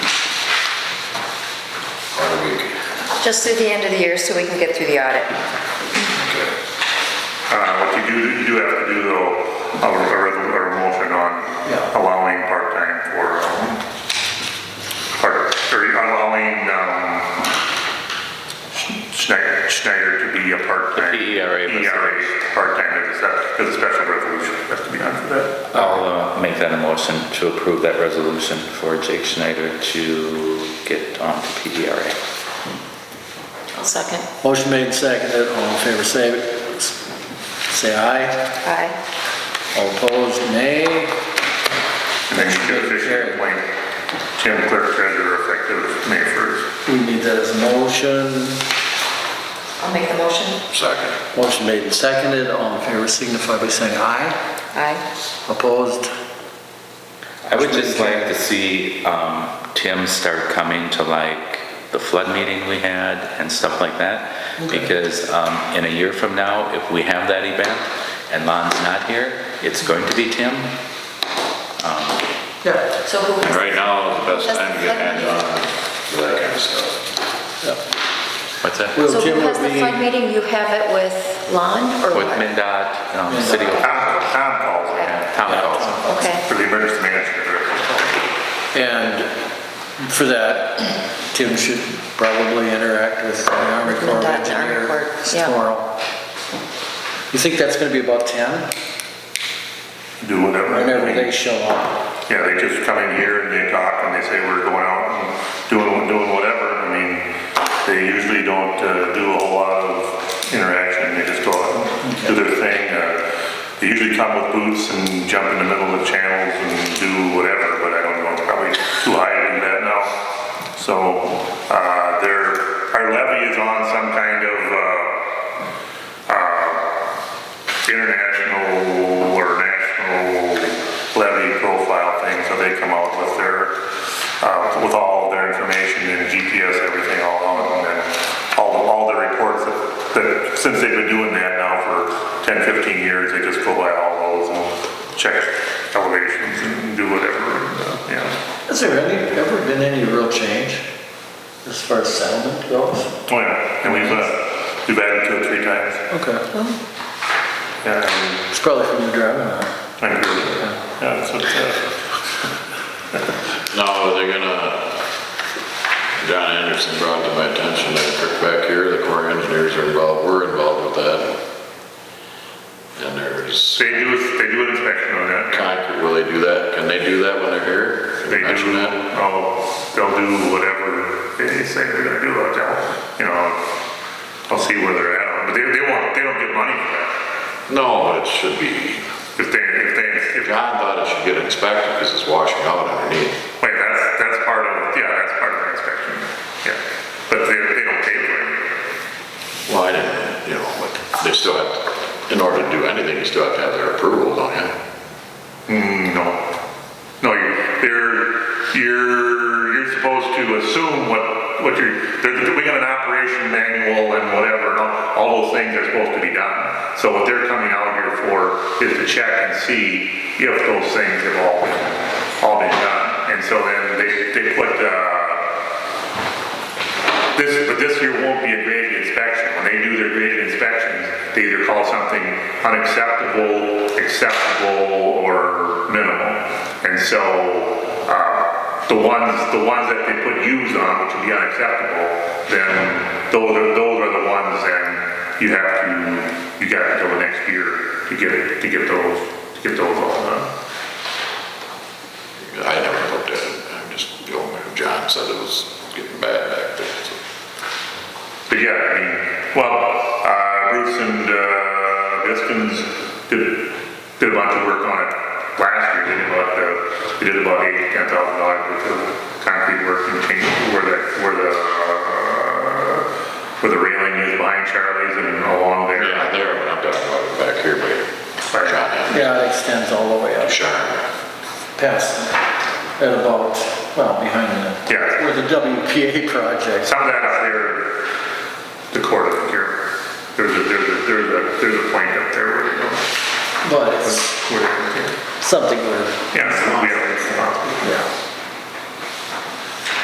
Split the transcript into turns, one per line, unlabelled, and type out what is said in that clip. Just through the end of the year so we can get through the audit.
Uh, What you do, you do have to do though, a a resol- or a motion on
Yeah.
allowing part-time for, um, part- or allowing um, Schneider, Schneider to be a part-time.
The PERA was-
PERA, part-time, is a, is a special resolution, has to be done for that.
I'll uh, make that a motion to approve that resolution for Jake Schneider to get onto PDRA.
I'll second.
Motion made and seconded, all in favor, say, say aye.
Aye.
All opposed, nay.
And then you can officially appoint Tim Clerk Treasurer effective May 1st.
We need that as a motion.
I'll make the motion.
Second.
Motion made and seconded, all in favor, signify by saying aye.
Aye.
Opposed,
I would just like to see um, Tim start coming to like the flood meeting we had and stuff like that. Because um, in a year from now, if we have that event and Lon's not here, it's going to be Tim.
yeah.
So who?
And right now is the best time to get hands on to that kind of stuff.
What's that?
Will
So
Jim
who
will
has the
be-
flood meeting? You have it with Lon or
With
what?
MinDOT, um, City of
Tom Tom calls in
Town Council.
Okay.
for the emergency management.
And for that, Tim should probably interact with the Army Corps of
Contact the Army
Engineers
Corps, yeah.
tomorrow. You think that's gonna be about 10?
Do whatever.
Whenever they show up.
Yeah, they just come in here and they talk and they say, we're going out and doing, doing whatever. I mean, they usually don't uh, do a whole lot of interaction, they just go out and do their thing. Uh, They usually come with boots and jump in the middle of channels and do whatever, but I don't know, probably too high to do that now. So, uh, their, our levy is on some kind of, uh, international or national levy profile thing, so they come out with their, uh, with all of their information and GPS, everything all on, and all, all the reports that, that, since they've been doing that now for 10, 15 years, they just go by all those and check elevations and do whatever, and, uh, yeah.
Has there any, ever been any real change as far as settlement goes?
Oh, yeah, and we've, uh, we've added to it three times,
Okay.
yeah, and
It's probably from the driving hour.
I agree with it. Yeah, that's what, uh,
No, they're gonna, uh, John Anderson brought to my attention that Kirk back here, the Corps of Engineers are involved, we're involved with that. And there's,
they do, they do an inspection on that.
Concrete, will they do that? Can they do that when they're here? Can
They
you mention
do,
that?
oh, they'll do whatever they say they're gonna do, I'll tell, you know, I'll see where they're at, but they, they won't, they don't get money for that.
No, but it should be,
If they, if they, if, wait,
John thought it should get inspected because it's washing out underneath.
that's, that's part of, yeah, that's part of the inspection, yeah, but they, they don't pay for it.
Well, I didn't, you know, but they still have, in order to do anything, you still have to have their approval, don't you?
Mm, No, no, you, they're, you're, you're supposed to assume what, what you're, they're, we got an operation manual and whatever, and all, all those things are supposed to be done. So what they're coming out here for is to check and see if those things have all been, all been done. And so then they, they put, uh, this, but this year won't be a graded inspection. When they do their graded inspections, they either call something unacceptable, acceptable, or minimal. And so, uh, the ones, the ones that they put U's on, which would be unacceptable, then those are, those are the ones then you have to, you got until the next year to get, to get those, to get those all done.
I never looked at it, I'm just, the only, John said it was getting bad back there, so.
But yeah, I mean, well, uh, Bruce and, uh, Biskins did, did a bunch of work on it last year, they did about, uh, they did about eight, ten thousand dollars worth of concrete work and change where the, where the, uh, where the railing is behind Charlie's and along there.
Yeah, there, but I'm talking about it back here, but John had
Yeah, it extends all the way up.
a shine.
past, at about, well, behind the,
Yeah.
where the WPA project,
Some of that up there, the court of here, there's a, there's a, there's a, there's a point up there where, you know,
but it's
where,
something where,
yeah, we have,
yeah.